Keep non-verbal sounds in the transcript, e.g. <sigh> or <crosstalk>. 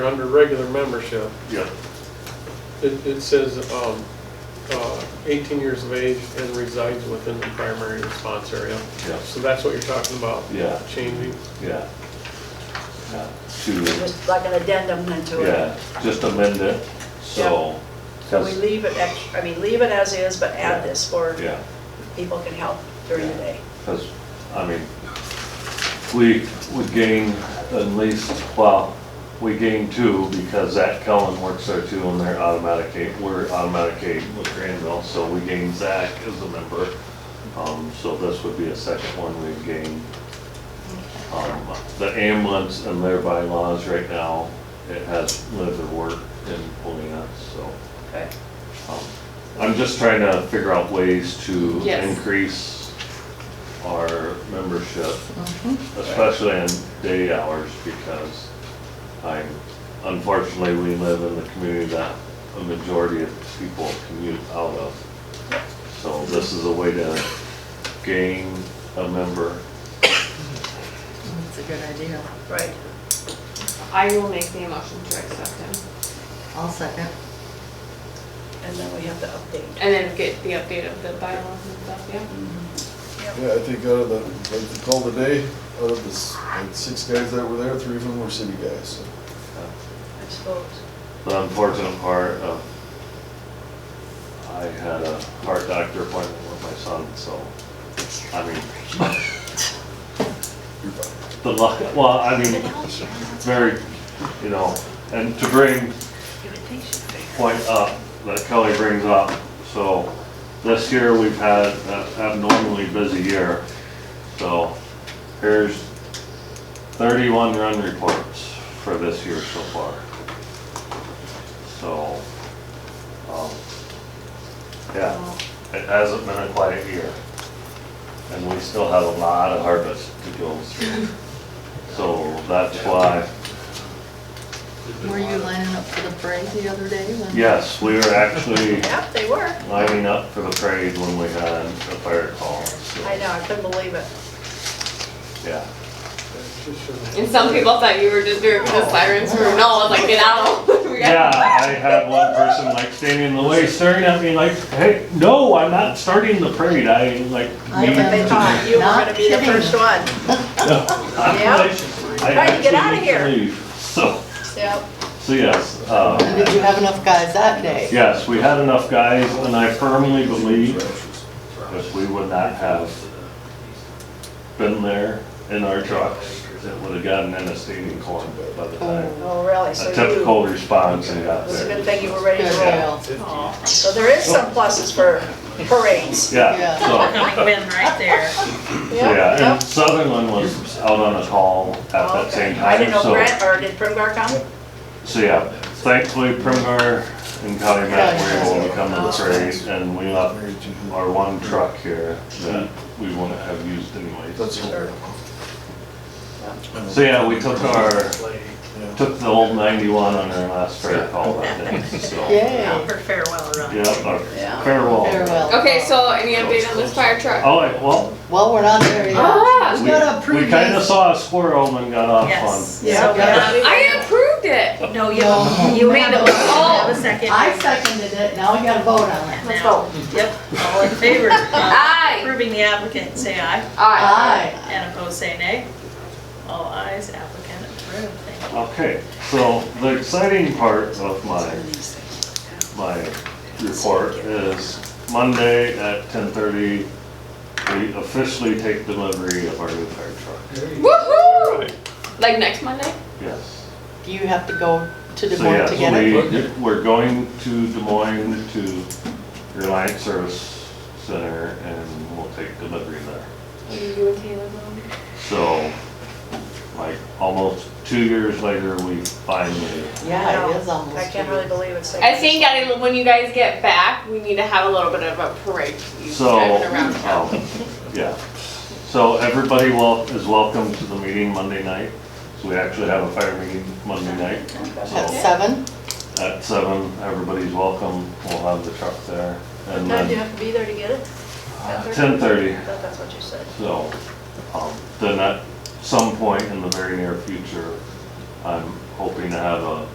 Under regular membership, Yeah, it, it says, um, uh, eighteen years of age and resides within the primary response area. Yeah. So that's what you're talking about? Yeah. Changing, yeah. Yeah, To, Just like an addendum then to it. yeah, just amend it, so. So we leave it, ex- I mean, leave it as is, but add this for Yeah. people can help during the day. Because, I mean, we would gain at least, well, we gain two because Zach Cullen works there too and they're automatic aid, we're automatic aid with Granville, so we gain Zach as a member. Um, so this would be a second one we've gained. Um, the ambulance and their bylaws right now, it has lived or worked in Polina, so. Okay. um, I'm just trying to figure out ways to Yes. increase our membership, especially in day hours, because I'm, unfortunately, we live in the community that a majority of people commute out of. So this is a way to gain a member. That's a good idea. Right. I will make the motion to accept him, I'll second. And then we have to update. and then get the update of the bylaws and stuff, yeah? Yeah, I think out of the, like the call today, out of the s- like six guys that were there, three of them were city guys, so. I suppose. The unfortunate part of, I had a heart doctor appointment with my son, so, I mean, <laughs> You're fine. the luck, well, I mean, it's very, you know, and to bring point up that Kelly brings up, so this year we've had an abnormally busy year. So here's thirty-one run reports for this year so far. So, um, yeah, it hasn't been a quiet year. And we still have a lot of harvest to go through. So that's why, Were you lining up for the parade the other day when? yes, we were actually Yep, they were. lining up for the parade when we had a fire call, so, I know, I couldn't believe it. yeah. And some people thought you were just doing the sirens for, no, I was like, get out. <laughs> We got- Yeah, I had one person like standing in the way staring at me like, hey, no, I'm not starting the parade, I like. I need bet They to-" thought you were gonna be the Not kidding. first one. I'm like, "I Trying to get actually out of need to here." leave." So, Yep. so yes, uh, Did you have enough guys that day? yes, we had enough guys and I firmly believe Because we would not have been there in our trucks, it would have gotten in a standing corn by the time. Oh, really? So A you, typical response and got it's a there. good thing you were ready Good to roll. deal. So there is some pluses for parades. Yeah, Yeah. so, win right there. Yep, yeah, and yep. Sutherland was out on a call at that same Okay. I time, didn't know so, Brent, or did Primgar come? so yeah. Thankfully, Primgar and County Matt were able to come to the parade and we left Married to- our one truck here that we wouldn't have used anyways. That's all. Sure. So yeah, we took our, Yeah. took the old ninety-one on our last freight call that day, so. Yay. For farewell run. Yeah, our Yeah. farewell. Farewell. Okay, so any update on this fire truck? All right, well, Well, we're not there yet. Ah, we, We gotta approve we kinda this. saw a squirrel and got off Yes. on. So, yeah, we- I approved it. No, you, you made a, oh, a second. I seconded it, now we gotta vote on it. Let's vote. Yep, all in favor of Aye. approving the applicant, say aye, Aye. and opposed, say nay. All ayes, applicant approved, thank you. Okay, so the exciting part of my, my report is Monday at ten thirty, we officially take delivery of our new fire truck. Woohoo! Like next Monday? Yes. Do you have to go to Des So Moines to get it? yes, we, we're going to Des Moines to Reliance Service Center and we'll take delivery there. What are you doing, Taylor? Mom? So, like, almost two years later, we finally, Yeah, it is I almost. can't really believe it's. like- I think at a- when you guys get back, we need to have a little bit of a parade. You so, driving around town. um, yeah. So everybody wel, is welcome to the meeting Monday night. So we actually have a fire meeting Monday night. At So seven? at seven, everybody's welcome. We'll have the truck there. And Now, do you then have to be there to get it? Uh, ten thirty, I thought that's what you said. so, um, then at some point in the very near future, I'm hoping to have a